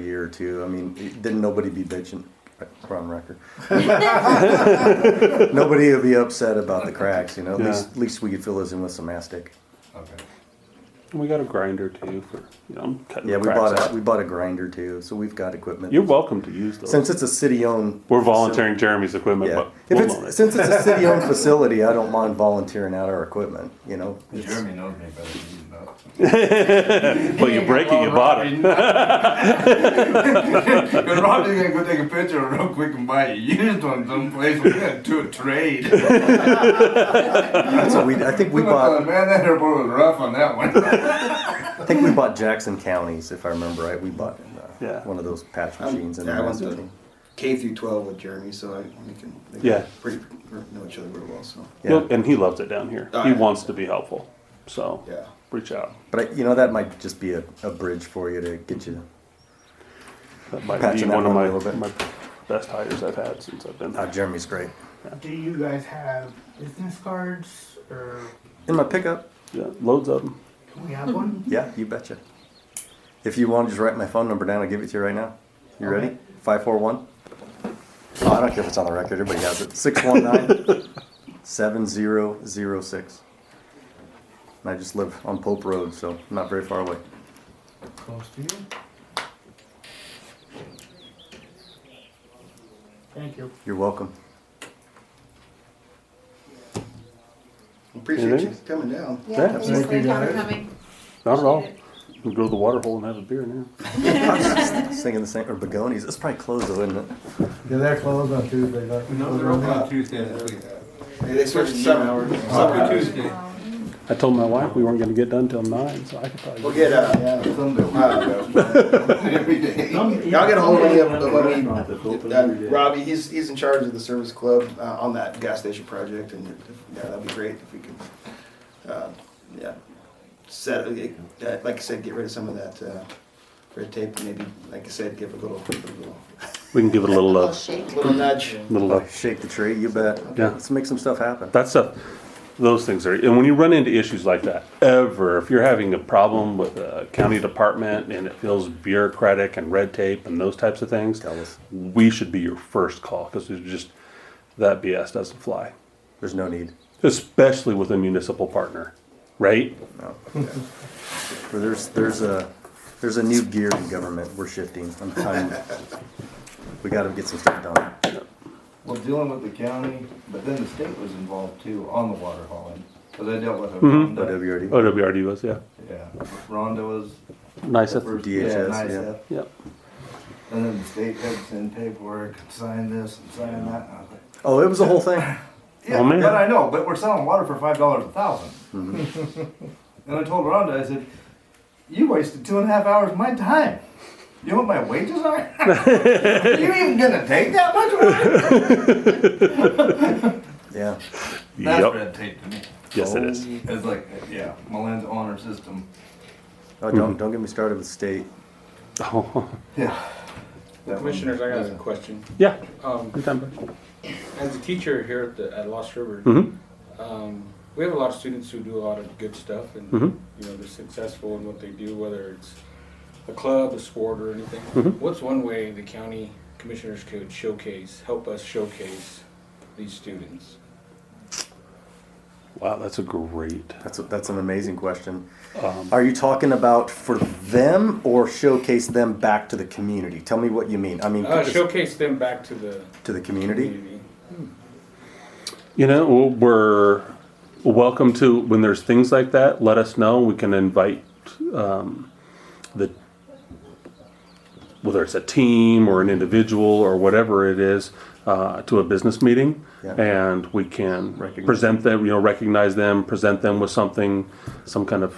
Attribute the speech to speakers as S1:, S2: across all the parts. S1: year or two. I mean, didn't nobody be bitching? We're on record. nobody would be upset about the cracks, you know. At
S2: Yeah.
S1: least, at least we could fill those in with some mastic.
S3: Okay.
S2: And we got a grinder too for you know cutting.
S1: Yeah,
S2: the
S1: we
S2: cracks
S1: bought
S2: out.
S1: a we bought a grinder too, so we've got equipment.
S2: You're welcome to use those.
S1: Since it's a city-owned,
S2: We're volunteering Jeremy's equipment,
S1: yeah.
S2: but
S1: If
S2: we'll loan
S1: it's
S2: it.
S1: since it's a city-owned facility, I don't mind volunteering out our equipment. You know, It's-
S3: Jeremy knows me better than you know.
S2: But you break it, you bought it.
S3: But Robbie's gonna go take a picture real quick and buy a used one someplace. We're gonna do a trade. I
S1: that's what we. I think we
S3: thought,
S1: bought.
S3: man, that airport was rough on that one.
S1: I think we bought Jackson counties, if I remember right. We bought uh,
S2: Yeah.
S1: one of those patch
S4: I'm-
S1: machines and
S4: Um, yeah, I went
S1: mastic.
S4: to K through 12 with Jeremy, so I we can they can
S2: Yeah.
S4: pretty we know each other real well. So
S1: Yeah.
S2: Look, and he loves it down here.
S4: Oh,
S2: he
S4: yeah.
S2: wants to be helpful, so
S4: yeah,
S2: reach out.
S1: But I, you know, that might just be a, a bridge for you to get you.
S2: That might
S1: Patching
S2: be
S1: that
S2: one of
S1: one a
S2: my,
S1: little bit.
S2: my best hires I've had since I've been
S1: Ah,
S2: here.
S1: Jeremy's great.
S5: Do you guys have business cards or
S1: In my pickup.
S2: Yeah, loads of them.
S5: can we have one?
S1: Yeah, you betcha. If you want, just write my phone number down. I'll give it to you right now. You ready?
S5: Okay.
S1: Five four one. Oh, I don't care if it's on the record. Everybody has it. Six one nine seven zero zero six. And I just live on Pope Road, so not very far away.
S5: Close to you. Thank you.
S1: You're welcome.
S4: appreciate
S2: Anything?
S4: you coming down.
S2: Yeah,
S6: Yeah, thanks
S1: absolutely.
S6: for coming.
S2: Not at all. We'll go to the water hole and have a beer now.
S1: Singing the same or begonias. It's probably closed though, isn't it?
S7: Yeah, they're closed on Tuesday, but.
S3: No, they're open on Tuesday this week.
S4: Hey, they switched to seven hours.
S3: Probably Tuesday.
S6: Um,
S2: I told my wife we weren't going to get done till nine, so I could probably.
S4: We'll get uh,
S7: Yeah, some do.
S3: Every day.
S4: y'all get a hold of me when we. Uh, Robbie, he's he's in charge of the service club uh, on that gas station project, and if- yeah, that'd be great if we could. Uh, yeah, set uh, like I said, get rid of some of that uh, red tape. and Maybe like I said, give a little a little,
S2: we can give it a little
S6: Little
S2: love.
S6: shake.
S4: little nudge.
S2: Little uh, love.
S1: Shake the tree, you bet.
S2: Yeah.
S1: Let's make some stuff happen.
S2: That's a, those things are, and when you run into issues like that, ever, if you're having a problem with a county department and it feels bureaucratic and red tape and those types of things,
S1: Tell us.
S2: we should be your first call because there's just, that BS doesn't fly,
S1: There's no need.
S2: especially with a municipal partner, right?
S1: Well, There's there's a there's a new gear in government. We're shifting. I'm telling you. We got to get some stuff done.
S3: Well, dealing with the county, but then the state was involved too on the water hauling. Cause I dealt with a
S2: Mhm.
S1: But have
S3: Rhonda.
S1: you already?
S2: OWRD was, yeah.
S3: Yeah, Rhonda was.
S2: Nice.
S3: the first- yeah,
S1: DHS,
S3: nice
S1: yeah.
S3: up.
S2: Yep.
S3: And then the state had to send paperwork, sign this and sign that. and I was like,
S1: Oh, it was the whole thing.
S3: Yeah,
S2: Oh, man.
S3: but I know, but we're selling water for five dollars a 1000 and I told Rhonda, I said, "You wasted two and a half hours of my time. You know what my wages are? you even gonna take that much?" Rhonda?"
S1: Yeah.
S3: That's
S2: Yep.
S3: red tape to me.
S2: Yes, it is.
S3: It's like, yeah, Milan's honor system.
S1: Oh, don't don't get me started with state.
S3: Yeah. That one.
S8: Commissioners, I got a question.
S2: Yeah.
S8: Um,
S2: Mhm.
S8: As a teacher here at the, at Lost River, um, we have a lot of students who do a lot of good stuff and,
S2: Mhm.
S8: you know, they're successful in what they do, whether it's a club, a sport, or anything.
S2: Mhm.
S8: What's one way the county commissioners could showcase, help us showcase these students?
S2: Wow, that's a great,
S1: That's a, that's an amazing question.
S2: um,
S1: Are you talking about for them or showcase them back to the community? Tell me what you mean. I mean
S8: Uh,
S1: just
S8: showcase them back to the
S1: to the community.
S8: community.
S2: You know, we're welcome to when there's things like that. Let us know. We can invite um, the whether it's a team or an individual or whatever it is uh, to a business meeting,
S1: Yeah.
S2: and we can
S1: Recognize.
S2: present them. You know, recognize them, present them with something, some kind of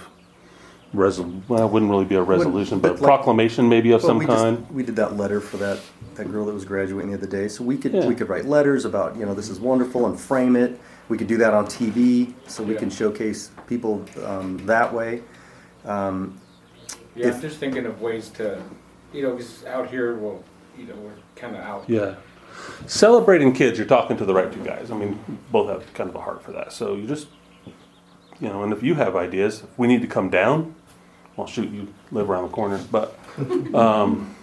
S2: resolution. Well, it wouldn't really be a resolution, but,
S1: but like-
S2: proclamation maybe of
S1: Well,
S2: some
S1: we just-
S2: kind.
S1: we did that letter for that that girl that was graduating the other day. So we could
S2: Yeah.
S1: we could write letters about you know this is wonderful and frame it. We could do that on TV, so we
S8: Yeah.
S1: can showcase people um, that way.
S8: Yeah,
S1: If-
S8: I'm just thinking of ways to, you know, 'cause out here, well, you know, we're kind of out.
S2: Yeah. Celebrating kids, you're talking to the right two guys. I mean, both have kind of a heart for that. So you just, you know, and if you have ideas, if we need to come down, well, shoot, you live around the corner, but, um,